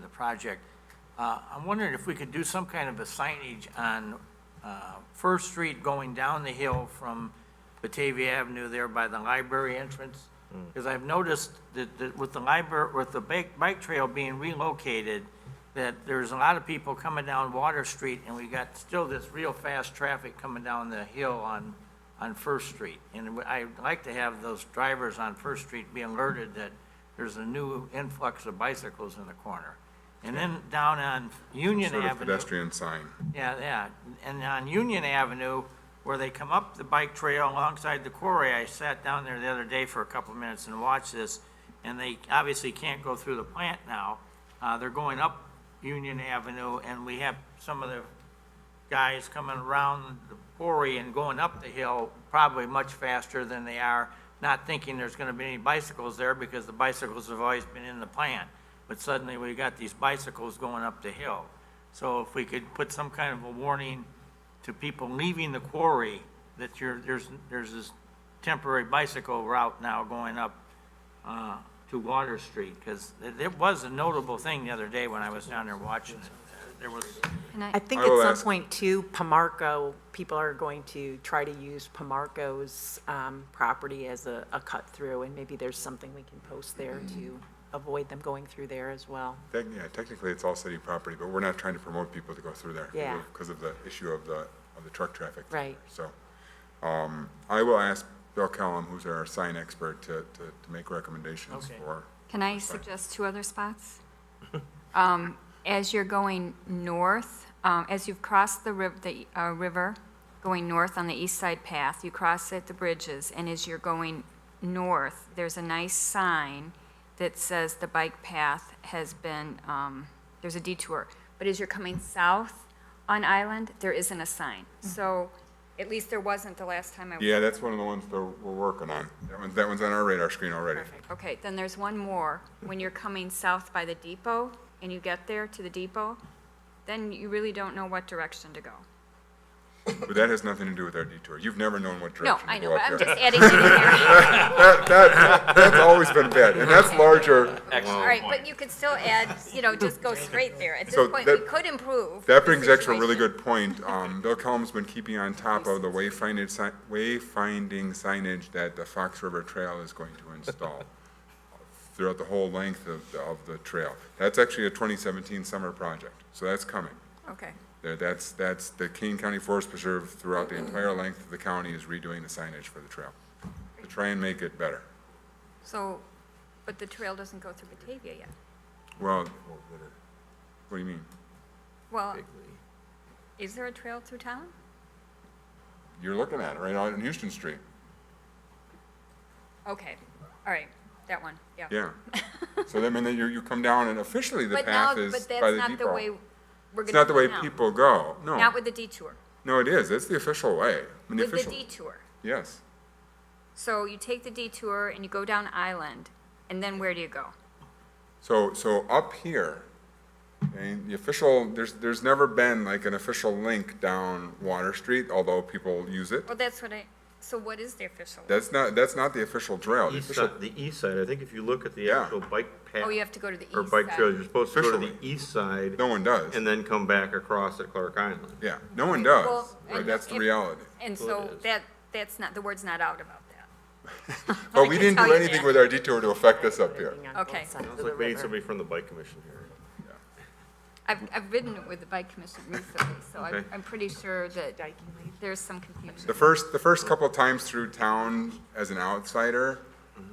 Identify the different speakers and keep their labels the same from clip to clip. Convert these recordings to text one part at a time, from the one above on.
Speaker 1: the project. Uh, I'm wondering if we could do some kind of a signage on uh, First Street going down the hill from Batavia Avenue there by the library entrance? Because I've noticed that that with the library, with the bike bike trail being relocated, that there's a lot of people coming down Water Street, and we got still this real fast traffic coming down the hill on, on First Street. And I'd like to have those drivers on First Street be alerted that there's a new influx of bicycles in the corner. And then down on Union
Speaker 2: Sort of
Speaker 1: Avenue.
Speaker 2: pedestrian sign.
Speaker 1: Yeah, yeah, and on Union Avenue, where they come up the bike trail alongside the quarry, I sat down there the other day for a couple of minutes and watched this, and they obviously can't go through the plant now. Uh, they're going up Union Avenue, and we have some of the guys coming around the quarry and going up the hill probably much faster than they are, not thinking there's gonna be any bicycles there because the bicycles have always been in the plant. But suddenly we got these bicycles going up the hill. So if we could put some kind of a warning to people leaving the quarry that you're, there's, there's this temporary bicycle route now going up, uh, to Water Street, because it, it was a notable thing the other day when I was down there watching it. There was,
Speaker 3: And I,
Speaker 4: I think
Speaker 2: I
Speaker 4: at
Speaker 2: will
Speaker 4: some
Speaker 2: ask-
Speaker 4: point too, Pomarco, people are going to try to use Pomarco's um, property as a, a cut through, and maybe there's something we can post there to avoid them going through there as well.
Speaker 2: Tec- Yeah, technically, it's all city property, but we're not trying to promote people to go through there.
Speaker 4: Yeah.
Speaker 2: Because of the issue of the, of the truck traffic.
Speaker 4: Right.
Speaker 2: So, um, I will ask Bill Callum, who's our sign expert, to, to, to make recommendations
Speaker 1: Okay.
Speaker 2: for.
Speaker 3: can I suggest two other spots? Um, As you're going north, um, as you've crossed the riv, the uh, river, going north on the east side path, you cross at the bridges, and as you're going north, there's a nice sign that says the bike path has been, um, there's a detour. But as you're coming south on Island, there isn't a sign. So at least there wasn't the last time I was
Speaker 2: Yeah, that's one of the ones that we're working on. That one's, that one's on our radar screen already.
Speaker 3: Okay, then there's one more. When you're coming south by the depot and you get there to the depot, then you really don't know what direction to go.
Speaker 2: But that has nothing to do with our detour. You've never known what
Speaker 3: No,
Speaker 2: direction
Speaker 3: I
Speaker 2: to
Speaker 3: know,
Speaker 2: go
Speaker 3: but
Speaker 2: up
Speaker 3: I'm
Speaker 2: there.
Speaker 3: just adding to the area.
Speaker 2: That, that, that's always been bad, and that's larger.
Speaker 3: All right, but you could still add, you know, just go straight there. At
Speaker 2: So
Speaker 3: this point, we
Speaker 2: that-
Speaker 3: could improve.
Speaker 2: That
Speaker 3: the
Speaker 2: brings actually a really
Speaker 3: situation.
Speaker 2: good point. Um, Bill Kellum's been keeping on top of the wayfinding, si- wayfinding signage that the Fox River Trail is going to install throughout the whole length of, the- of the trail. That's actually a 2017 summer project, so that's coming.
Speaker 3: Okay,
Speaker 2: There- That's, that's, the Kane County Forest Preserve throughout the entire length of the county is redoing the signage for the trail to try and make it better.
Speaker 3: so, but the trail doesn't go through Batavia yet.
Speaker 2: Well, what do you mean?
Speaker 3: Well, is there a trail through town?
Speaker 2: You're looking at it right out on Houston Street.
Speaker 3: Okay, all right, that one, yeah.
Speaker 2: Yeah. So that means that you, you come down and officially the
Speaker 3: But now,
Speaker 2: path is
Speaker 3: but
Speaker 2: by
Speaker 3: that's
Speaker 2: the
Speaker 3: not the way
Speaker 2: depot.
Speaker 3: we're
Speaker 2: It's
Speaker 3: gonna
Speaker 2: not the
Speaker 3: go
Speaker 2: way
Speaker 3: now.
Speaker 2: people go.
Speaker 5: Oh.
Speaker 2: No,
Speaker 3: Not with the detour,
Speaker 2: no, it is. It's the official way. I mean, the
Speaker 3: with the
Speaker 2: official,
Speaker 3: detour.
Speaker 2: yes.
Speaker 3: So you take the detour and you go down Island, and then where do you go?
Speaker 2: So, so up here, and the official, there's, there's never been like an official link down Water Street, although people use it.
Speaker 3: Well, that's what I, so what is the official?
Speaker 2: That's not, that's not the official trail. The
Speaker 5: East
Speaker 2: official,
Speaker 5: side, the east side, I think if you look at the
Speaker 2: Yeah.
Speaker 5: actual bike path.
Speaker 3: Oh, you have to go to the east
Speaker 5: Or bike trails, you're supposed to go to the
Speaker 2: Officially.
Speaker 5: east side
Speaker 2: no one does.
Speaker 5: and then come back across at Clark Island.
Speaker 2: Yeah, no one
Speaker 3: Well,
Speaker 2: does.
Speaker 3: and
Speaker 2: Right, that's the
Speaker 3: if-
Speaker 2: reality.
Speaker 3: And
Speaker 5: Well, it
Speaker 3: so
Speaker 5: is.
Speaker 3: that, that's not, the word's not out about that.
Speaker 2: But we
Speaker 3: can
Speaker 2: didn't
Speaker 3: tell
Speaker 2: do
Speaker 3: you
Speaker 2: anything
Speaker 3: that.
Speaker 2: with our detour to affect this up here.
Speaker 4: Everything on both
Speaker 3: Okay.
Speaker 4: sides of
Speaker 5: Sounds
Speaker 4: the
Speaker 5: like we need
Speaker 4: river.
Speaker 5: somebody from the bike commission here.
Speaker 3: I've, I've ridden it with the bike commission recently, so I'm,
Speaker 5: Okay.
Speaker 3: I'm pretty sure that
Speaker 4: Dyking Lane.
Speaker 3: there's some confusion.
Speaker 2: The first, the first couple times through town as an outsider,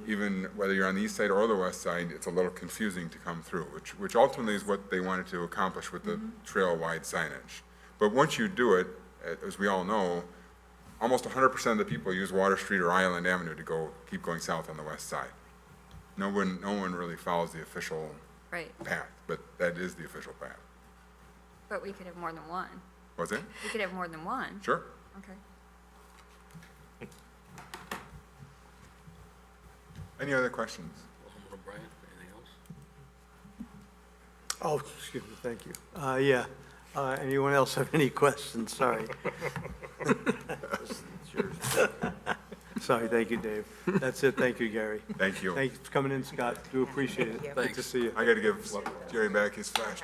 Speaker 2: even whether you're on the east side or the west side, it's a little confusing to come through, which, which ultimately is what they wanted to accomplish with the trail-wide signage. But once you do it, a- as we all know, almost hundred percent of the people use Water Street or Island Avenue to go, keep going south on the west side. No one, no one really follows the official
Speaker 3: Right,
Speaker 2: path, but that is the official path.
Speaker 3: but we could have more than one.
Speaker 2: Was it?
Speaker 3: We could have more than one.
Speaker 2: Sure.
Speaker 3: Okay.
Speaker 2: Any other questions?
Speaker 6: Brian, anything else?
Speaker 7: Oh, excuse me, thank you. Uh, Yeah, Uh, anyone else have any questions? Sorry. Sorry, thank you, Dave. That's it, thank you, Gary.
Speaker 2: Thank you.
Speaker 7: Thanks for coming in, Scott, do appreciate it. Good to
Speaker 6: Thanks.
Speaker 7: see you.
Speaker 2: I gotta give Jerry back his flash